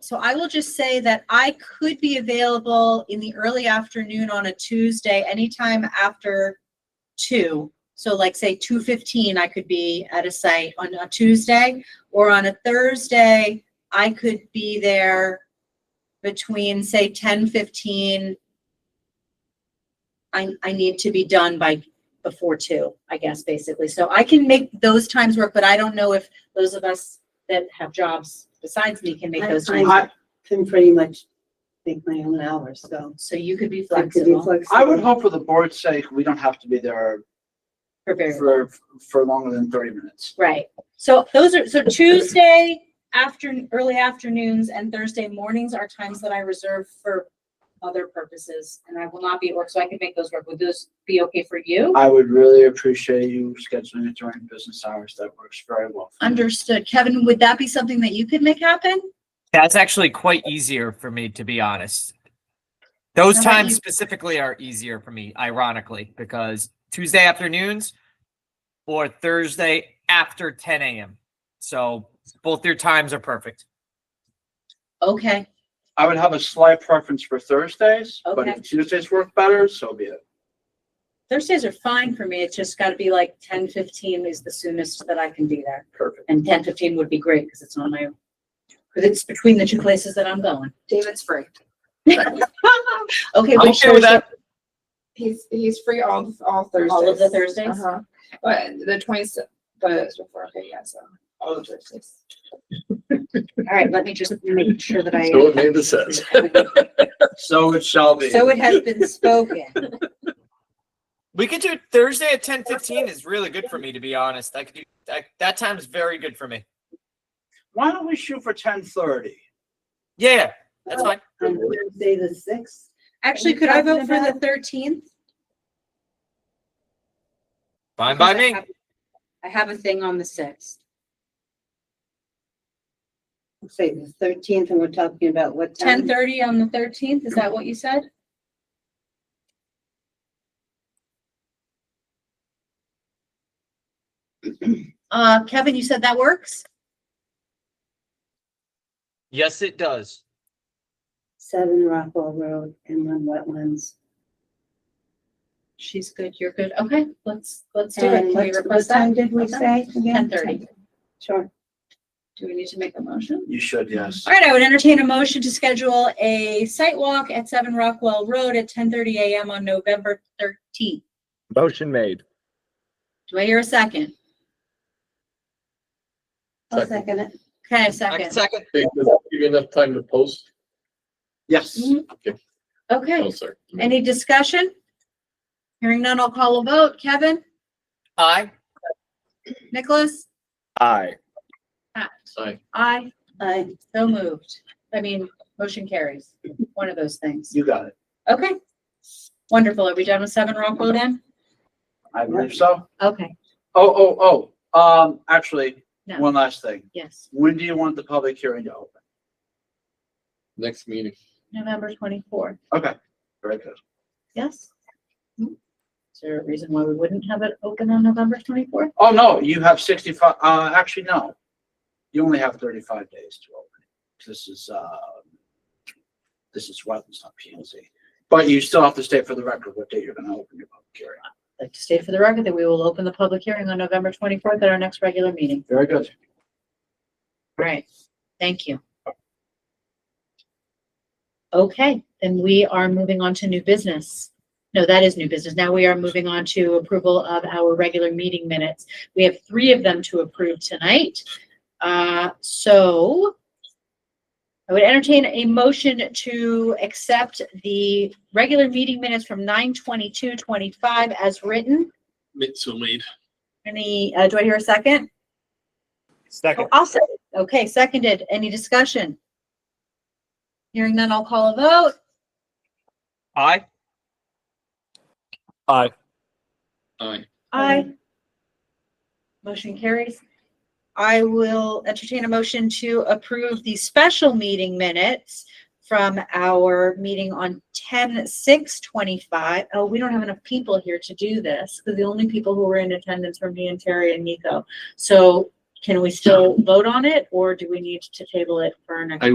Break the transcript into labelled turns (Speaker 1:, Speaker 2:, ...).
Speaker 1: So I will just say that I could be available in the early afternoon on a Tuesday, anytime after two. So like say two fifteen, I could be at a site on a Tuesday or on a Thursday, I could be there between say ten fifteen. I, I need to be done by before two, I guess, basically. So I can make those times work, but I don't know if those of us that have jobs besides me can make
Speaker 2: I-
Speaker 1: those
Speaker 2: I-
Speaker 1: times.
Speaker 2: I can pretty much make my own hours, so.
Speaker 1: So you could be
Speaker 2: I could be
Speaker 1: flexible
Speaker 3: I would hope for the board's sake, we don't have to be there
Speaker 1: for very,
Speaker 3: for, for longer than thirty minutes.
Speaker 1: right. So those are, so Tuesday after, early afternoons and Thursday mornings are times that I reserve for other purposes. And I will not be at work, so I can make those work. Would those be okay for you?
Speaker 3: I would really appreciate you scheduling it during business hours. That works very well. for me.
Speaker 1: Understood. Kevin, would that be something that you could make happen?
Speaker 4: That's actually quite easier for me, to be honest. Those
Speaker 1: How about
Speaker 4: times
Speaker 1: you?
Speaker 4: specifically are easier for me, ironically, because Tuesday afternoons or Thursday after 10 a.m. So both your times are perfect.
Speaker 1: Okay,
Speaker 3: I would have a slight preference for Thursdays, but
Speaker 1: Okay.
Speaker 3: if Tuesdays work better, so be it.
Speaker 1: Thursdays are fine for me. It's just gotta be like ten fifteen is the soonest that I can be there.
Speaker 3: Perfect.
Speaker 1: And ten fifteen would be great because it's on my, because it's between the two places that I'm going.
Speaker 5: David's free.
Speaker 1: Okay,
Speaker 4: I'm
Speaker 1: which
Speaker 4: okay with
Speaker 1: Thursday?
Speaker 4: that.
Speaker 5: He's he's free all all Thursdays.
Speaker 1: All of the Thursdays?
Speaker 5: Uh-huh. But the twenty the before, okay, yeah, so all the Thursdays.
Speaker 1: All right, let me just make sure that I.
Speaker 6: So Amanda says.
Speaker 3: So it shall be.
Speaker 1: So it has been spoken.
Speaker 4: We could do Thursday at 10:15 is really good for me, to be honest. I could do that, that time's very good for me.
Speaker 3: Why don't we shoot for ten thirty?
Speaker 4: Yeah, yeah, that's fine.
Speaker 2: On Thursday the sixth,
Speaker 1: Actually, could I vote for the thirteenth?
Speaker 4: Fine by me.
Speaker 1: I have a thing on the sixth.
Speaker 2: say the thirteenth, and we're talking about what time?
Speaker 1: Ten thirty on the thirteenth, is that what you said? Uh, Kevin, you said that works?
Speaker 4: Yes, it does.
Speaker 2: Seven Rockwell Road, inland wetlands.
Speaker 1: She's good, you're good. Okay, let's, let's do it.
Speaker 2: And
Speaker 1: Can we
Speaker 2: what,
Speaker 1: request
Speaker 2: what time
Speaker 1: that?
Speaker 2: did we say
Speaker 1: Ten
Speaker 2: again?
Speaker 1: thirty.
Speaker 2: Sure.
Speaker 1: Do we need to make a motion?
Speaker 3: You should, yes.
Speaker 1: All right, I would entertain a motion to schedule a site walk at Seven Rockwell Road at ten thirty AM on November thirteenth.
Speaker 6: Motion made.
Speaker 1: Do I hear a second?
Speaker 2: I'll second it.
Speaker 1: Okay, a
Speaker 4: I can
Speaker 1: second.
Speaker 4: second.
Speaker 6: Hey, does that give you enough time to post?
Speaker 3: Yes.
Speaker 1: Mm-hmm.
Speaker 6: No,
Speaker 1: Okay,
Speaker 6: sir.
Speaker 1: any discussion? Hearing none, I'll call a vote. Kevin,
Speaker 4: Aye.
Speaker 1: Nicholas?
Speaker 6: Aye.
Speaker 1: Pat.
Speaker 6: Aye.
Speaker 1: Aye.
Speaker 2: I,
Speaker 1: So moved. I mean, motion carries. One of those things.
Speaker 3: You got it.
Speaker 1: Okay. Wonderful. Are we done with Seven Rockwell then?
Speaker 3: I believe so.
Speaker 1: Okay,
Speaker 3: Oh, oh, oh, um, actually,
Speaker 1: No.
Speaker 3: one last thing.
Speaker 1: yes.
Speaker 3: When do you want the public hearing to open?
Speaker 6: Next meeting.
Speaker 1: November twenty-fourth,
Speaker 3: Okay, very good.
Speaker 1: yes? Is there a reason why we wouldn't have it open on November twenty-fourth?
Speaker 3: Oh, no, you have sixty-five, uh, actually, no. You only have thirty-five days to open it. This is, uh, this is wetlands, not P and Z. But you still have to stay for the record what day you're gonna open your public hearing.
Speaker 1: Like to state for the record that we will open the public hearing on November twenty-fourth at our next regular meeting.
Speaker 3: Very good.
Speaker 1: Right. Thank you. Okay, then we are moving on to new business. No, that is new business. Now we are moving on to approval of our regular meeting minutes. We have three of them to approve tonight. Uh, so I would entertain a motion to accept the regular meeting minutes from nine twenty-two twenty-five as written.
Speaker 6: So made.
Speaker 1: Any, uh, do I hear a second? Oh,
Speaker 4: Second.
Speaker 1: I'll second. Okay, seconded. Any discussion? Hearing none, I'll call a vote.
Speaker 4: Aye.
Speaker 6: Aye.
Speaker 1: Aye. Motion carries. I will entertain a motion to approve the special meeting minutes from our meeting on 10 6 25. Oh, we don't have enough people here to do this because the only people who were in attendance were me and Terry and Nico. So can we still vote on it or do we need to table it for our next?